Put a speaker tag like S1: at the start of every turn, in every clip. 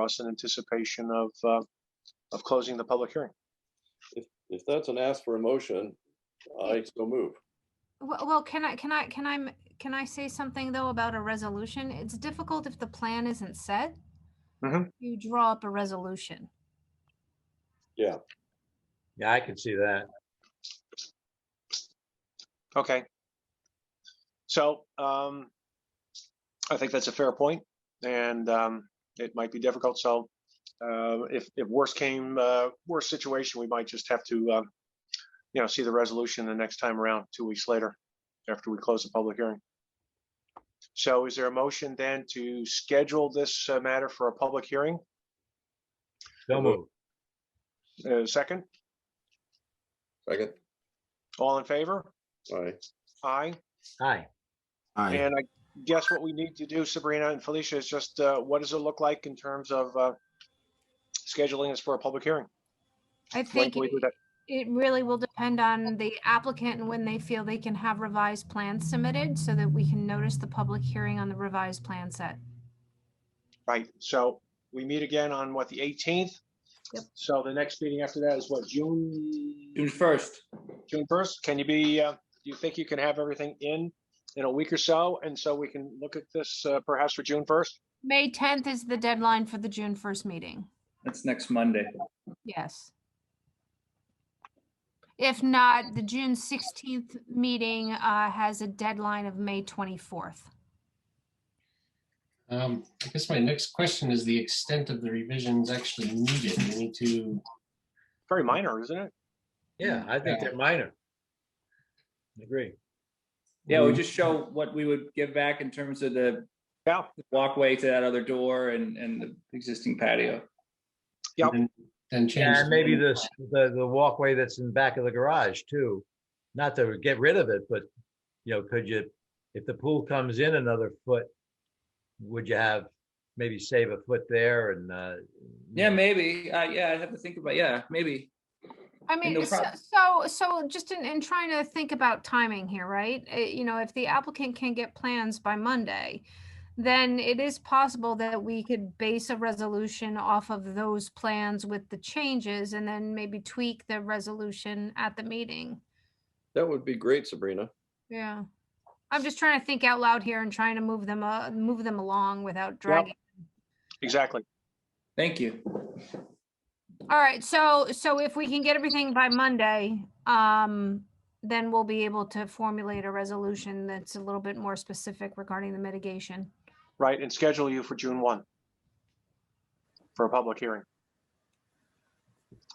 S1: us in anticipation of, uh, of closing the public hearing.
S2: If that's an ask for a motion, I so move.
S3: Well, well, can I, can I, can I, m- can I say something though about a resolution? It's difficult if the plan isn't set.
S1: Mhm.
S3: You draw up a resolution.
S4: Yeah, I can see that.
S1: Okay. So um, I think that's a fair point, and um, it might be difficult. So uh, if if worse came, uh, worse situation, we might just have to, um, you know, see the resolution the next time around, two weeks later, after we close the public hearing. So is there a motion then to schedule this uh, matter for a public hearing?
S4: So move.
S1: Uh, Second,
S2: Second.
S1: all in favor?
S2: Aye.
S1: Aye.
S4: Hi.
S5: Aye.
S1: And I guess what we need to do, Sabrina and Felicia, is just, uh, what does it look like in terms of, uh, scheduling this for a public hearing?
S3: I
S1: When
S3: think
S1: can we
S3: it
S1: do that?
S3: it really will depend on the applicant and when they feel they can have revised plans submitted so that we can notice the public hearing on the revised plan set.
S1: Right, so we meet again on what, the eighteenth?
S3: Yep.
S1: So the next meeting after that is what, June?
S6: June first.
S1: June first, can you be, uh, do you think you can have everything in, in a week or so? And so we can look at this, uh, perhaps for June first?
S3: May tenth is the deadline for the June first meeting.
S6: That's next Monday.
S3: Yes. If not, the June sixteenth meeting uh, has a deadline of May twenty-fourth.
S7: Um, I guess my next question is the extent of the revisions actually needed. We need to,
S1: Very minor, isn't it?
S4: Yeah, I think they're minor. Agree.
S6: Yeah, we just show what we would give back in terms of the
S1: Yeah.
S6: walkway to that other door and, and the existing patio.
S1: Yep.
S7: then- then change.
S4: And maybe this, the, the walkway that's in the back of the garage too. Not to get rid of it, but, you know, could you, if the pool comes in another foot, would you have, maybe save a foot there and, uh?
S6: Yeah, maybe. Uh, yeah, I'd have to think about, yeah, maybe.
S3: I mean,
S6: no
S3: so,
S6: prob-
S3: so, so just in, in trying to think about timing here, right? Uh, You know, if the applicant can get plans by Monday, then it is possible that we could base a resolution off of those plans with the changes and then maybe tweak the resolution at the meeting.
S2: That would be great, Sabrina.
S3: Yeah. I'm just trying to think out loud here and trying to move them, uh, move them along without dragging.
S1: Exactly.
S6: Thank you.
S3: All right, so, so if we can get everything by Monday, um, then we'll be able to formulate a resolution that's a little bit more specific regarding the mitigation.
S1: Right, and schedule you for June one for a public hearing.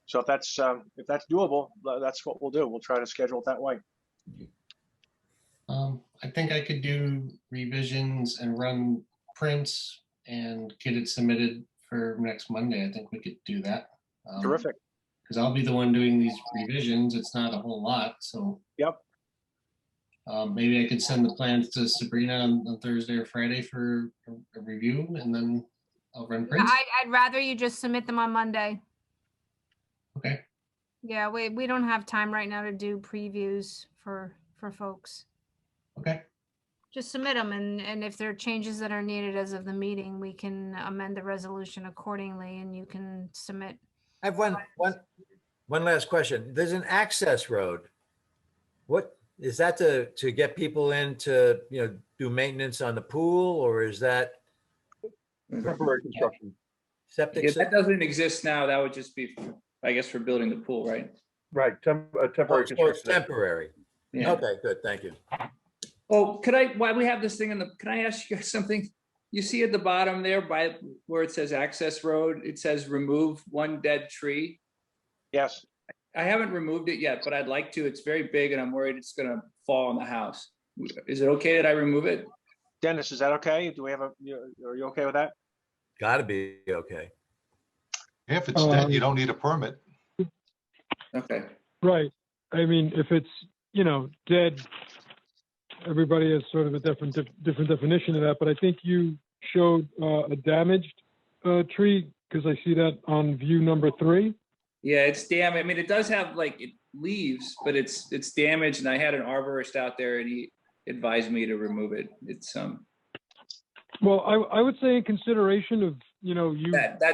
S1: So if that's, um, if that's doable, tha- that's what we'll do. We'll try to schedule it that way.
S7: Um, I think I could do revisions and run prints and get it submitted for next Monday. I think we could do that.
S5: Um,
S1: Terrific.
S7: Because I'll be the one doing these revisions. It's not a whole lot, so.
S1: Yep.
S7: Um, maybe I could send the plans to Sabrina on on Thursday or Friday for a- a review and then I'll run prints.
S3: I, I'd rather you just submit them on Monday.
S7: Okay.
S3: Yeah, we, we don't have time right now to do previews for, for folks.
S7: Okay.
S3: Just submit them and, and if there are changes that are needed as of the meeting, we can amend the resolution accordingly and you can submit.
S4: I have one, one, one last question. There's an access road. What, is that to, to get people in to, you know, do maintenance on the pool or is that
S2: Temporary construction.
S4: septic?
S6: If
S4: system?
S6: that doesn't exist now, that would just be, I guess, for building the pool, right?
S5: Right, tem- uh,
S4: Oh,
S5: temporary
S4: so it's
S5: construction.
S4: Temporary.
S6: Yeah.
S4: Okay, good. Thank you.
S6: Oh, could I, while we have this thing on the, can I ask you guys something? You see at the bottom there by where it says access road, it says remove one dead tree.
S1: Yes,
S6: I haven't removed it yet, but I'd like to. It's very big and I'm worried it's gonna fall on the house. Is it okay that I remove it?
S1: Dennis, is that okay? Do we have a, you- are you okay with that?
S4: Gotta be okay.
S8: If it's dead, you don't need a permit.
S6: Okay,
S9: Right. I mean, if it's, you know, dead, everybody has sort of a different, different definition of that, but I think you showed uh, a damaged uh, tree because I see that on view number three.
S6: yeah, it's damn, I mean, it does have like it leaves, but it's, it's damaged and I had an arborist out there and he advised me to remove it. It's, um,
S9: Well, I, I would say in consideration of, you know, you
S6: that, that's